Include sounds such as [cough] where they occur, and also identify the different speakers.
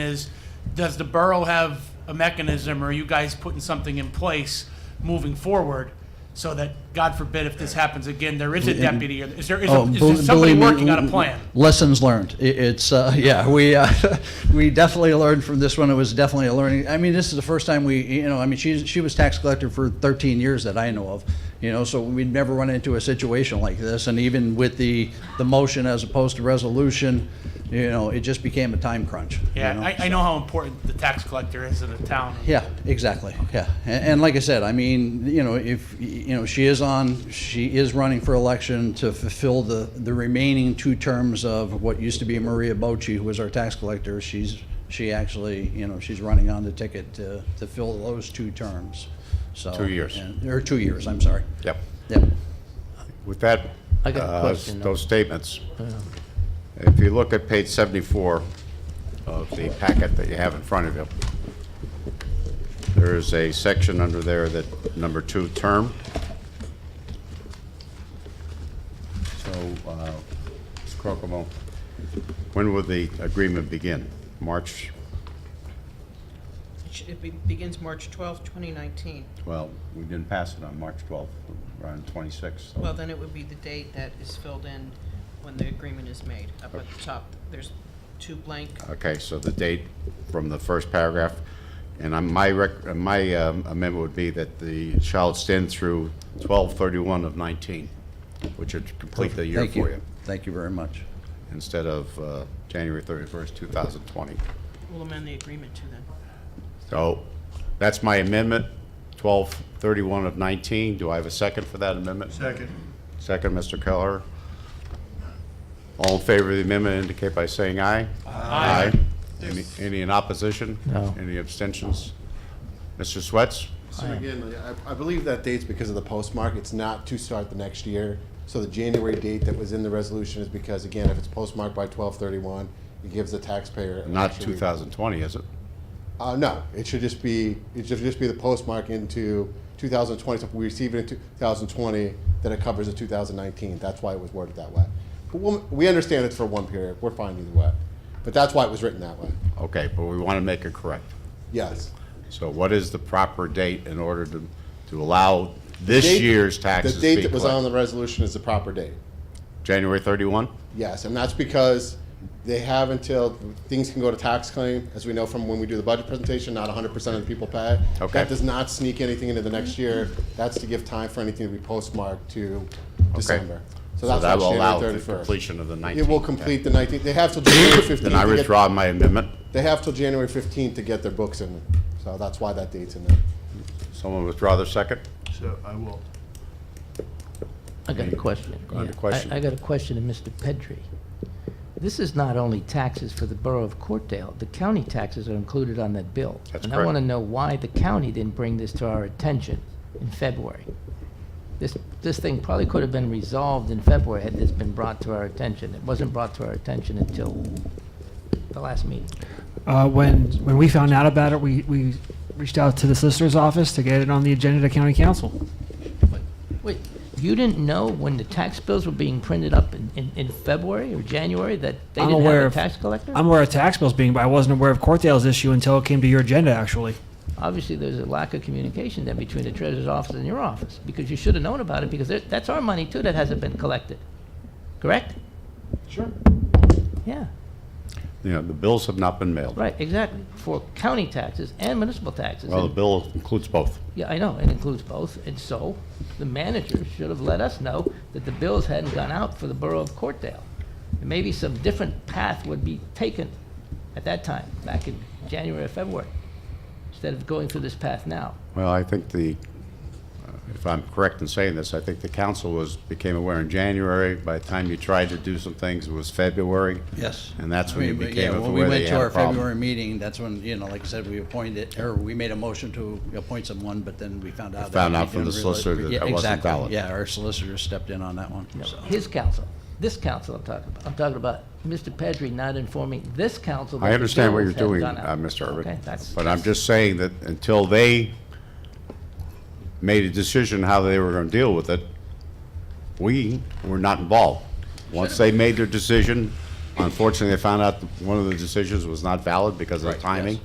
Speaker 1: is, does the borough have a mechanism, or are you guys putting something in place moving forward? So that, God forbid, if this happens again, there is a deputy, or is there, is
Speaker 2: Oh,
Speaker 1: there- is
Speaker 2: bel-
Speaker 1: there somebody
Speaker 2: believe me, mm,
Speaker 1: working on a plan?
Speaker 2: Lessons learned. I- It's, uh, [laughs] yeah, we, uh, we definitely learned from this one. It was definitely a learning. I mean, this is the first time we, you know, I mean, she, she was tax collector for 13 years that I know of, you know, so we'd never run into a situation like this. And even with the, the motion as opposed to resolution, you know, it just became a time crunch. you
Speaker 1: Yeah,
Speaker 2: know?
Speaker 1: I, I know how important the tax collector is in a town.
Speaker 2: Yeah, exactly, yeah. And, and like I said, I mean, you know, if, you know, she is on, she is running for election to fulfill the, the remaining two terms of what used to be Maria Bochi, who was our tax collector. She's, she actually, you know, she's running on the ticket to, to fill those two terms, so.
Speaker 3: Two years.
Speaker 2: and- Or two years, I'm sorry.
Speaker 3: Yep.
Speaker 2: Yep.
Speaker 3: With that,
Speaker 4: I got a
Speaker 3: uh,
Speaker 4: question, though.
Speaker 3: those statements, if you look at page 74 of the packet that you have in front of you, there is a section under there that, number two, term. So, uh, Mr. Crocomo, when will the agreement begin? March,
Speaker 5: It be- begins March twelfth, 2019.
Speaker 3: well, we didn't pass it on March 12th, we're on 26th. so-
Speaker 5: Well, then it would be the date that is filled in when the agreement is made. Up at the top, there's two blank,
Speaker 3: Okay, so the date from the first paragraph, and I'm- my rec- uh, my um, amendment would be that the shall extend through 12/31 of 19, which would complete the year
Speaker 2: Thank
Speaker 3: for you,
Speaker 2: Thank you very much.
Speaker 3: instead of uh, January 31st, 2020.
Speaker 5: we'll amend the agreement to then.
Speaker 3: So that's my amendment, 12/31 of 19. Do I have a second for that amendment? Second. Second, Mr. Keller. All in favor of the amendment indicate by saying aye. Aye. Any- Any in opposition?
Speaker 4: No.
Speaker 3: Any abstentions? Mr. Swets?
Speaker 6: So again, I, I believe that date's because of the postmark. It's not to start the next year. So the January date that was in the resolution is because, again, if it's postmarked by twelve thirty-one, it gives the taxpayer. an
Speaker 3: Not
Speaker 6: extra week.
Speaker 3: 2020, is it?
Speaker 6: Uh, no, it should just be, it should just be the postmark into two thousand twenty. So if we receive it in two thousand twenty, then it covers the two thousand nineteen. That's why it was worded that way. But we'll, we understand it's for one period. We're fine either way. But that's why it was written that way.
Speaker 3: Okay, but we want to make it correct.
Speaker 6: Yes.
Speaker 3: So what is the proper date in order to, to allow this
Speaker 6: Date-
Speaker 3: year's taxes to
Speaker 6: The
Speaker 3: be
Speaker 6: date that was on
Speaker 3: collected?
Speaker 6: the resolution is the proper date.
Speaker 3: January 31?
Speaker 6: Yes, and that's because they have until, things can go to tax claim, as we know from when we do the budget presentation, not hundred percent of the people pay.
Speaker 3: Okay.
Speaker 6: That does not sneak anything into the next year, that's to give time for anything to be postmarked to December.
Speaker 3: So
Speaker 6: So that's
Speaker 3: that
Speaker 6: what's
Speaker 3: will allow
Speaker 6: January
Speaker 3: the
Speaker 6: thirty-first.
Speaker 3: completion of the 19th.
Speaker 6: It will complete the nineteenth, they have till January
Speaker 3: [coughs]
Speaker 6: fifteenth.
Speaker 3: Then I withdraw my amendment.
Speaker 6: They have till January fifteenth to get their books in, so that's why that date's in there.
Speaker 3: Someone withdraw their second?
Speaker 7: So I will.
Speaker 4: I got a question.
Speaker 3: Under
Speaker 4: Yeah.
Speaker 3: question.
Speaker 4: I I got a question to Mr. Petrie. This is not only taxes for the borough of Courtdale, the county taxes are included on that bill.
Speaker 3: That's
Speaker 4: And I
Speaker 3: correct.
Speaker 4: want to know why the county didn't bring this to our attention in February. This, this thing probably could have been resolved in February had this been brought to our attention. It wasn't brought to our attention until the last meeting.
Speaker 8: Uh, when when we found out about it, we, we reached out to the solicitor's office to get it on the agenda to county council.
Speaker 4: Wait, you didn't know when the tax bills were being printed up in, in, in February or January that they
Speaker 8: I'm
Speaker 4: didn't
Speaker 8: aware
Speaker 4: have a
Speaker 8: of-
Speaker 4: tax collector?
Speaker 8: I'm aware of tax bills being, but I wasn't aware of Courtdale's issue until it came to your agenda, actually.
Speaker 4: obviously there's a lack of communication then between the treasurer's office and your office because you should have known about it because there- that's our money too that hasn't been collected. Correct? Sure. Yeah,
Speaker 3: You know, the bills have not been mailed.
Speaker 4: right, exactly. For county taxes and municipal taxes.
Speaker 3: Well, the
Speaker 4: And-
Speaker 3: bill includes both.
Speaker 4: Yeah, I know, it includes both. And so the manager should have let us know that the bills hadn't gone out for the borough of Courtdale. And maybe some different path would be taken at that time, back in January or February, instead of going through this path now.
Speaker 3: Well, I think the, uh, if I'm correct in saying this, I think the council was, became aware in January. By the time you tried to do some things, it was February.
Speaker 2: Yes.
Speaker 3: And that's
Speaker 2: I
Speaker 3: when you
Speaker 2: mean, but
Speaker 3: became
Speaker 2: yeah,
Speaker 3: aware
Speaker 2: when we
Speaker 3: that
Speaker 2: went
Speaker 3: you
Speaker 2: to
Speaker 3: had a
Speaker 2: our
Speaker 3: problem.
Speaker 2: February meeting, that's when, you know, like I said, we appointed, or we made a motion to appoint someone, but then we found out. that
Speaker 3: found
Speaker 2: we
Speaker 3: out from
Speaker 2: didn't
Speaker 3: the
Speaker 2: realize-
Speaker 3: solicitor that
Speaker 2: Yeah,
Speaker 3: that wasn't
Speaker 2: exactly.
Speaker 3: valid.
Speaker 2: Yeah, our solicitor stepped in on that one, so.
Speaker 4: His council, this council I'm talking about. I'm talking about Mr. Pedri not informing this council. that
Speaker 3: I
Speaker 4: the
Speaker 3: understand what you're
Speaker 4: bills had
Speaker 3: doing,
Speaker 4: gone out.
Speaker 3: uh, Mr.
Speaker 4: Okay,
Speaker 3: Urban,
Speaker 4: that's-
Speaker 3: but I'm just saying that until they made a decision how they were going to deal with it, we were not involved. Once they made their decision, Unfortunately, they found out that one of the decisions was not valid because of the timing.